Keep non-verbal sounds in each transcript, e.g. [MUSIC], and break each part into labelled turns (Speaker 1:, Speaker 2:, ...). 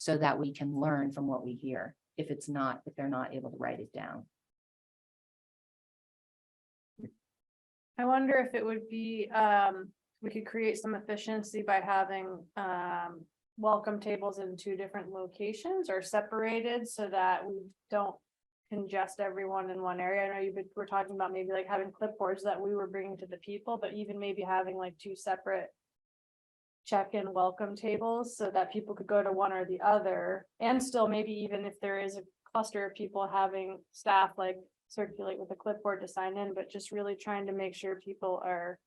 Speaker 1: so that we can learn from what we hear, if it's not, if they're not able to write it down.
Speaker 2: I wonder if it would be, um, we could create some efficiency by having, um, welcome tables in two different locations or separated so that we don't congest everyone in one area. I know you have we're talking about maybe like having clipboards that we were bringing to the people, but even maybe having like two separate check-in welcome tables so that people could go to one or the other. And still maybe even if there is a cluster of people having staff like circulate with a clipboard to sign in, but just really trying to make sure people are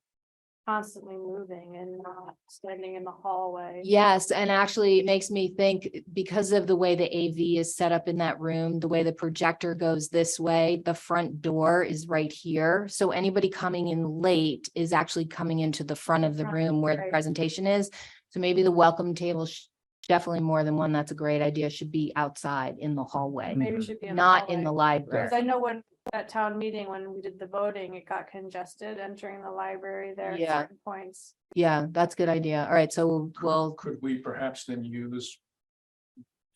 Speaker 2: constantly moving and not standing in the hallway.
Speaker 1: Yes, and actually it makes me think, because of the way the AV is set up in that room, the way the projector goes this way, the front door is right here. So anybody coming in late is actually coming into the front of the
Speaker 2: Front,
Speaker 1: room where the
Speaker 2: right.
Speaker 1: presentation is. So maybe the welcome table, sh- definitely more than one, that's a great idea, should be outside in the hallway,
Speaker 2: Maybe it should be.
Speaker 1: not in the
Speaker 2: hallway.
Speaker 1: library.
Speaker 2: Cause I know when, at town meeting, when we did the voting, it got congested entering the library there at
Speaker 1: Yeah.
Speaker 2: certain points.
Speaker 1: Yeah, that's a good idea. All right, so we'll,
Speaker 3: Could we perhaps then use?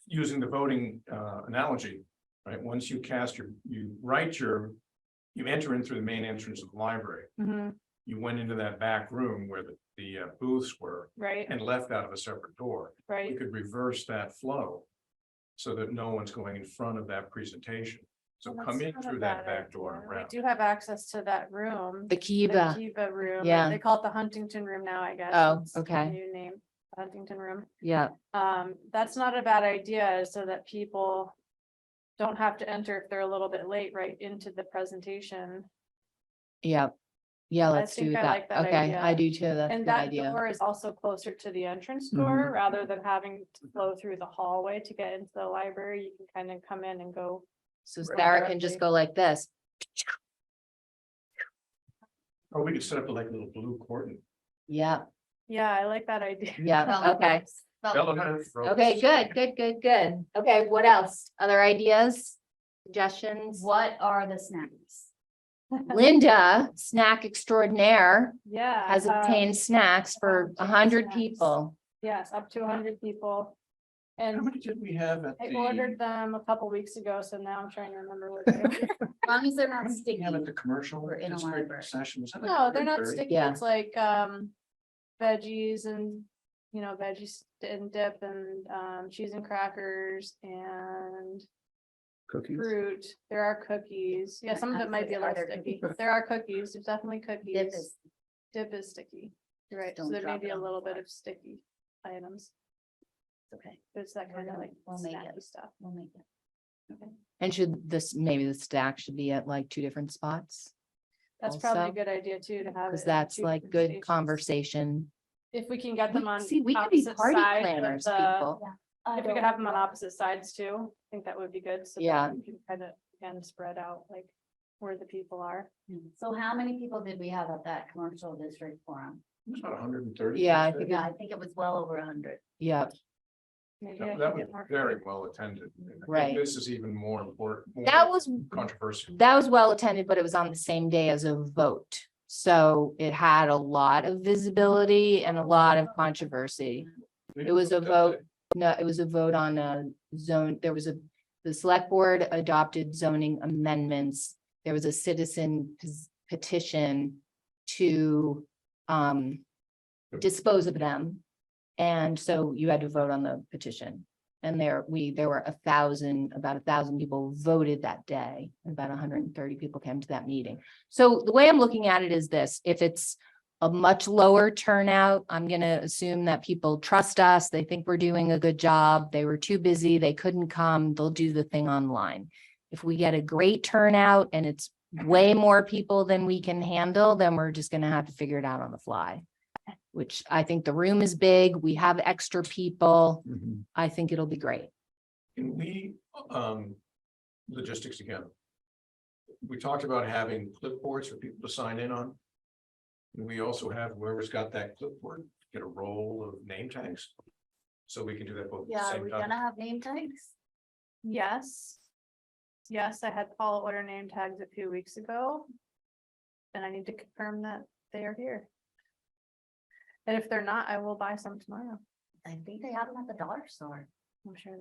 Speaker 3: Using the voting uh analogy, right? Once you cast your, you write your. You enter in through the main entrance of the library.
Speaker 2: Mhm,
Speaker 3: You went into that back room where the the uh, booths were
Speaker 2: right,
Speaker 3: and left out of a separate door. We
Speaker 2: right,
Speaker 3: could reverse that flow. So that no one's going in front of that presentation. So
Speaker 2: Well,
Speaker 3: come
Speaker 2: that's
Speaker 3: in
Speaker 2: not a
Speaker 3: through
Speaker 2: bad
Speaker 3: that back door and
Speaker 2: idea.
Speaker 3: around.
Speaker 2: We do have access to that room.
Speaker 1: the
Speaker 2: The
Speaker 1: Kiva,
Speaker 2: Kiva room.
Speaker 1: Yeah.
Speaker 2: They call it the Huntington Room now, I guess.
Speaker 1: Oh,
Speaker 2: It's the
Speaker 1: okay.
Speaker 2: New name, Huntington Room.
Speaker 1: yeah,
Speaker 2: Um, that's not a bad idea, so that people don't have to enter if they're a little bit late right into the presentation.
Speaker 1: yeah. Yeah,
Speaker 2: I
Speaker 1: let's do
Speaker 2: think I
Speaker 1: that.
Speaker 2: like that
Speaker 1: Okay, I
Speaker 2: idea.
Speaker 1: do too. That's a
Speaker 2: And
Speaker 1: good
Speaker 2: that
Speaker 1: idea. Mm-hmm.
Speaker 2: door is also closer to the entrance door, rather than having to flow through the hallway to get into the library, you can kind of come in and go.
Speaker 1: So
Speaker 3: Right.
Speaker 1: Sarah can just
Speaker 2: Directly.
Speaker 1: go like this.
Speaker 3: Or we could set up like a little blue cordon.
Speaker 1: Yeah,
Speaker 2: Yeah, I like that idea. [LAUGHS]
Speaker 1: yeah, okay. Okay, good, good, good, good. Okay, what else? Other ideas? Suggestions?
Speaker 4: What are the snacks?
Speaker 1: Linda, snack extraordinaire,
Speaker 2: Yeah.
Speaker 1: has
Speaker 2: um,
Speaker 1: obtained snacks for a
Speaker 2: um,
Speaker 1: hundred
Speaker 2: snacks.
Speaker 1: people.
Speaker 2: Yes, up to hundred people.
Speaker 3: How
Speaker 2: And
Speaker 3: many did we have at
Speaker 2: I
Speaker 3: the?
Speaker 2: ordered them a couple weeks ago, so now I'm trying to
Speaker 1: [LAUGHS]
Speaker 2: remember what. they were.
Speaker 4: As long as they're not
Speaker 3: Didn't
Speaker 4: sticky.
Speaker 3: Have at the commercial.
Speaker 4: We're in a
Speaker 3: district
Speaker 4: library.
Speaker 3: Session. Was that like
Speaker 2: No, they're not
Speaker 3: 3:30?
Speaker 2: sticky.
Speaker 1: Yeah.
Speaker 2: It's like, um, veggies and, you know, veggies and dip and, um, cheese and crackers and
Speaker 5: Cookies.
Speaker 2: fruit. There are cookies. Yeah, some of it might be a
Speaker 4: Are
Speaker 2: little
Speaker 4: there
Speaker 2: sticky.
Speaker 4: cookies?
Speaker 2: There are cookies. There's definitely
Speaker 4: Dip
Speaker 2: cookies.
Speaker 4: is-
Speaker 2: Dip is sticky. You're Right, so
Speaker 4: Don't
Speaker 2: there may
Speaker 4: drop it
Speaker 2: be a
Speaker 4: on the
Speaker 2: little bit
Speaker 4: floor.
Speaker 2: of sticky items.
Speaker 4: Okay,
Speaker 2: but It's that
Speaker 4: We're
Speaker 2: kind of
Speaker 4: gonna-
Speaker 2: like
Speaker 4: we'll make
Speaker 2: snacky
Speaker 4: it.
Speaker 2: stuff.
Speaker 4: we'll make it.
Speaker 1: And should this, maybe the stack should be at like two different spots?
Speaker 2: That's probably a
Speaker 1: Also,
Speaker 2: good idea too, to have.
Speaker 1: Cause
Speaker 2: it in
Speaker 1: that's
Speaker 2: two
Speaker 1: like
Speaker 2: different
Speaker 1: good
Speaker 2: stations.
Speaker 1: conversation.
Speaker 2: If we can get
Speaker 1: We-
Speaker 2: them on.
Speaker 1: See, we could be
Speaker 2: opposite
Speaker 1: party
Speaker 2: sides of
Speaker 1: planners,
Speaker 2: the-
Speaker 1: people.
Speaker 2: If we could have them on opposite sides too, I think that would be good. so that
Speaker 1: Yeah.
Speaker 2: we can Kind of, again, spread out like where the people are.
Speaker 4: So how many people did we have at that commercial district forum?
Speaker 3: It was about hundred and thirty.
Speaker 1: Yeah, I think
Speaker 4: Yeah, I think it was well over a hundred.
Speaker 1: Yeah,
Speaker 2: Maybe I
Speaker 3: That
Speaker 2: can
Speaker 3: that was
Speaker 2: get more-
Speaker 3: very well attended. And I think
Speaker 1: Right.
Speaker 3: This is even more important. more
Speaker 1: that was
Speaker 3: Controversial.
Speaker 1: that was well attended, but it was on the same day as a vote. So it had a lot of visibility and a lot of controversy. It was a vote. No, it was a vote on a zone, there was a, the select board adopted zoning amendments. There was a citizen pes- petition to um dispose of them. And so you had to vote on the petition. And there, we, there were a thousand, about a thousand people voted that day, and about hundred and thirty people came to that meeting. So the way I'm looking at it is this, if it's a much lower turnout, I'm gonna assume that people trust us, they think we're doing a good job, they were too busy, they couldn't come, they'll do the thing online. If we get a great turnout and it's way more people than we can handle, then we're just gonna have to figure it out on the fly. Which I think the room is big, we have extra people,
Speaker 3: Can
Speaker 1: I think it'll be great.
Speaker 3: Mm-hmm. we, um, logistics again? We talked about having clipboards for people to sign in on. And we also have whoever's got that clipboard, get a roll of name tags. So we can do that both at
Speaker 4: Yeah,
Speaker 3: the
Speaker 4: are
Speaker 3: same
Speaker 4: we
Speaker 3: time.
Speaker 4: gonna have name tags?
Speaker 2: Yes. Yes, I had Paula order name tags a few weeks ago. And I need to confirm that they are here. And if they're not, I will buy some tomorrow.
Speaker 4: I think they have them at the dollar store.
Speaker 2: I'm sure